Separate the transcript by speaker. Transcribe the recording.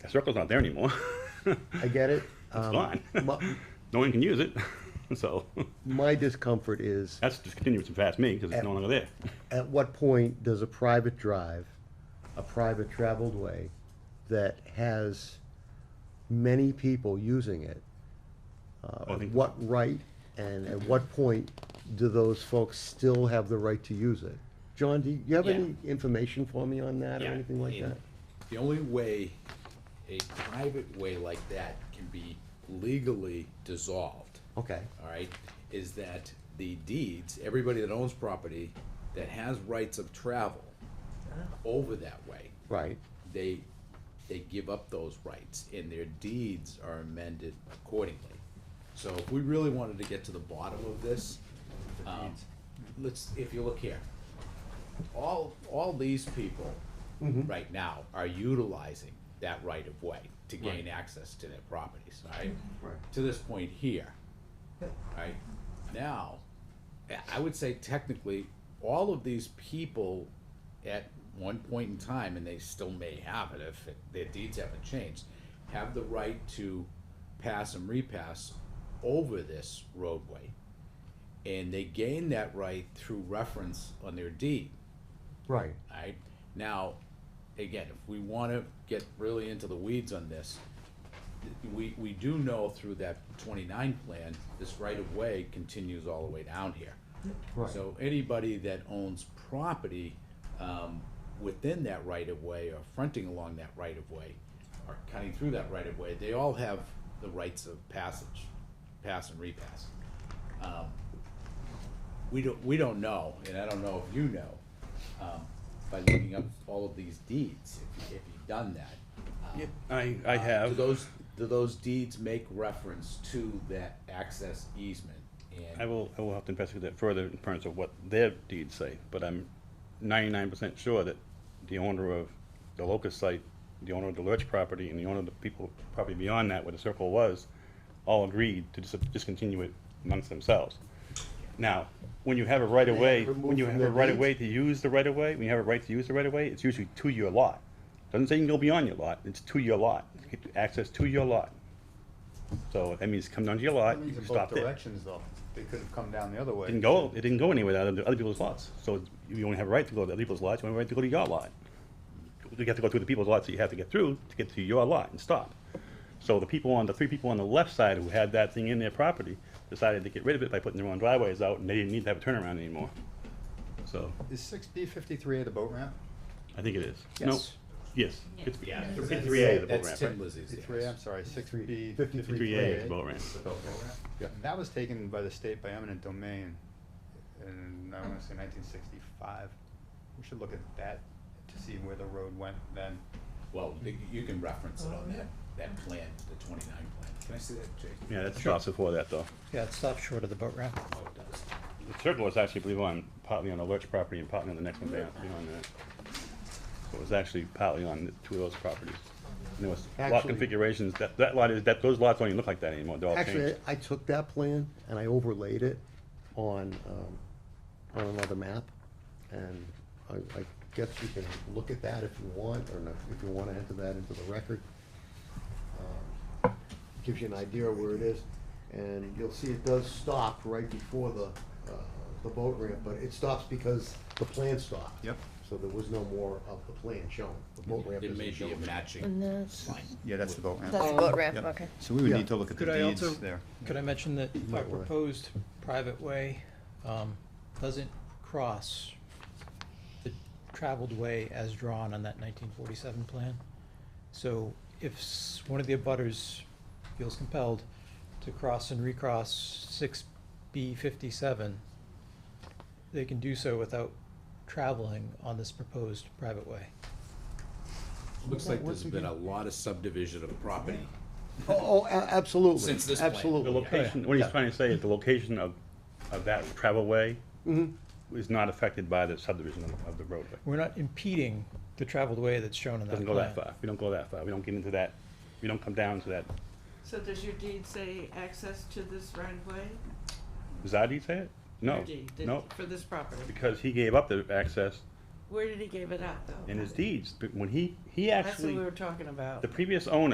Speaker 1: The circle's not there anymore.
Speaker 2: I get it. Um,
Speaker 1: It's gone.
Speaker 2: my,
Speaker 1: no one can use it. so
Speaker 2: my discomfort is,
Speaker 1: that's discontinuous and fast me because it's no longer there.
Speaker 2: at what point does a private drive, a private traveled way that has many people using it,
Speaker 1: I
Speaker 2: uh,
Speaker 1: think-
Speaker 2: what right and at what point do those folks still have the right to use it? John, do you have
Speaker 3: Yeah.
Speaker 2: any information for me on that or
Speaker 1: Yeah,
Speaker 2: anything like
Speaker 3: And
Speaker 2: that?
Speaker 3: The only way a private way like that can be legally dissolved,
Speaker 2: Okay,
Speaker 3: all right, is that the deeds, everybody that owns property that has rights of travel over that way,
Speaker 2: right,
Speaker 3: they, they give up those rights, and their deeds are amended accordingly. So if we really wanted to get to the bottom of this, um, let's, if you look here, all, all these people right now are utilizing that right of way to gain access to their properties, all right?
Speaker 2: Right.
Speaker 3: To this point here, all right? Now, I- I would say technically, all of these people at one point in time, and they still may have it if it- their deeds haven't changed, have the right to pass and repass over this roadway. And they gain that right through reference on their deed,
Speaker 2: right.
Speaker 3: alright? Now, again, if we wanna get really into the weeds on this, we, we do know through that twenty-nine plan, this right-of-way continues all the way down here.
Speaker 2: Right.
Speaker 3: So anybody that owns property, um, within that right-of-way or fronting along that right-of-way, or cutting through that right-of-way, they all have the rights of passage, pass and repass. Um, We don't, we don't know, and I don't know if you know, um, by looking up all of these deeds, if you- if you've done that. um,
Speaker 1: I, I
Speaker 3: do
Speaker 1: have.
Speaker 3: those, do those deeds make reference to that access easement?
Speaker 1: I
Speaker 3: And,
Speaker 1: will, I will have to investigate that further in terms of what their deeds say, but I'm ninety-nine percent sure that the owner of the locust site, the owner of the Lurch property, and the owner of the people probably beyond that where the circle was, all agreed to dis- discontinue it amongst themselves. Now, when you have a right-of-way,
Speaker 2: Removed
Speaker 1: when you
Speaker 2: from
Speaker 1: have a
Speaker 2: their
Speaker 1: right-of-way to use the right-of-way, when you have a right to use the right-of-way, it's usually to your lot. Doesn't say you can go beyond your lot, it's to your lot, access to your lot. So that means come down to your lot,
Speaker 4: That
Speaker 1: you
Speaker 4: means
Speaker 1: can
Speaker 4: in
Speaker 1: stop
Speaker 4: both
Speaker 1: there.
Speaker 4: directions, though. They could have come down the other way.
Speaker 1: Didn't go, it didn't go anywhere other than other people's lots. So you only have a right to go to other people's lots, you only have a right to go to your lot. You have to go through the people's lots that you have to get through to get to your lot and stop. So the people on, the three people on the left side who had that thing in their property decided to get rid of it by putting their own driveways out and they didn't need to have a turnaround anymore. So,
Speaker 4: Is six B fifty-three A the boat ramp?
Speaker 1: I think it is. No,
Speaker 4: Yes.
Speaker 1: Yes. It's
Speaker 3: Yeah,
Speaker 1: fifty-three A the boat
Speaker 3: that's
Speaker 1: ramp,
Speaker 3: Tim
Speaker 1: right?
Speaker 3: Lizzie's.
Speaker 4: Fifty-three, I'm sorry, six B.
Speaker 2: 53A
Speaker 1: Fifty-three A is the boat ramp.
Speaker 4: That was taken by the state by eminent domain in, I wanna say nineteen sixty-five. We should look at that to see where the road went then.
Speaker 3: Well, you- you can reference it on that, that plan, the twenty-nine plan. Can I see that, Jay?
Speaker 1: Yeah, that's stops before that though.
Speaker 5: Yeah, it stops short of the boat ramp.
Speaker 3: Oh, it does.
Speaker 1: The circle was actually, I believe, on, partly on the Lurch property and partly on the next one down, beyond that. So It was actually partly on the two of those properties. And there was lot
Speaker 2: Actually-
Speaker 1: configurations, that, that lot is, that, those lots don't even look like that anymore, they're all
Speaker 2: Actually,
Speaker 1: changed.
Speaker 2: I took that plan and I overlaid it on, um, on another map. And I, I guess you can look at that if you want, or not, if you wanna enter that into the record. Um, Gives you an idea of where it is, and you'll see it does stop right before the, uh, the boat ramp, but it stops because the plan stopped.
Speaker 4: Yep.
Speaker 2: So there was no more of the plan shown, the boat ramp
Speaker 3: There
Speaker 2: isn't
Speaker 3: may be a
Speaker 2: shown.
Speaker 3: matching
Speaker 6: that's,
Speaker 3: line.
Speaker 4: Yeah, that's the boat
Speaker 6: that's the boat ramp,
Speaker 4: Yep.
Speaker 6: okay.
Speaker 4: So we would
Speaker 2: Yeah.
Speaker 4: need to look at the
Speaker 5: Could I also-
Speaker 4: deeds there.
Speaker 5: Could I mention that our
Speaker 2: might wanna-
Speaker 5: proposed private way um, doesn't cross the traveled way as drawn on that 1947 plan? So if s- one of the abutters feels compelled to cross and recross 6B57, they can do so without traveling on this proposed private way.
Speaker 3: Looks like there's been a lot of subdivision of property.
Speaker 2: Oh, oh, a- absolutely,
Speaker 3: Since this plan.
Speaker 2: absolutely.
Speaker 1: The location, what he's
Speaker 2: Yeah.
Speaker 1: trying to say is the location of, of that travelway
Speaker 2: Mm-hmm.
Speaker 1: is not affected by the subdivision of- of the roadway.
Speaker 5: We're not impeding the traveled way that's shown in that
Speaker 1: Doesn't
Speaker 5: plan.
Speaker 1: go that far, we don't go that far, we don't get into that, we don't come down to that.
Speaker 7: So does your deed say access to this right of way?
Speaker 1: Does Adi say it? No,
Speaker 7: Your deed, did-
Speaker 1: no,
Speaker 7: For this property?
Speaker 1: because he gave up the access Where did he give it up, though?
Speaker 7: in his deeds, but when he, he
Speaker 1: That's what
Speaker 7: actually,
Speaker 1: we were talking about.
Speaker 7: the previous owner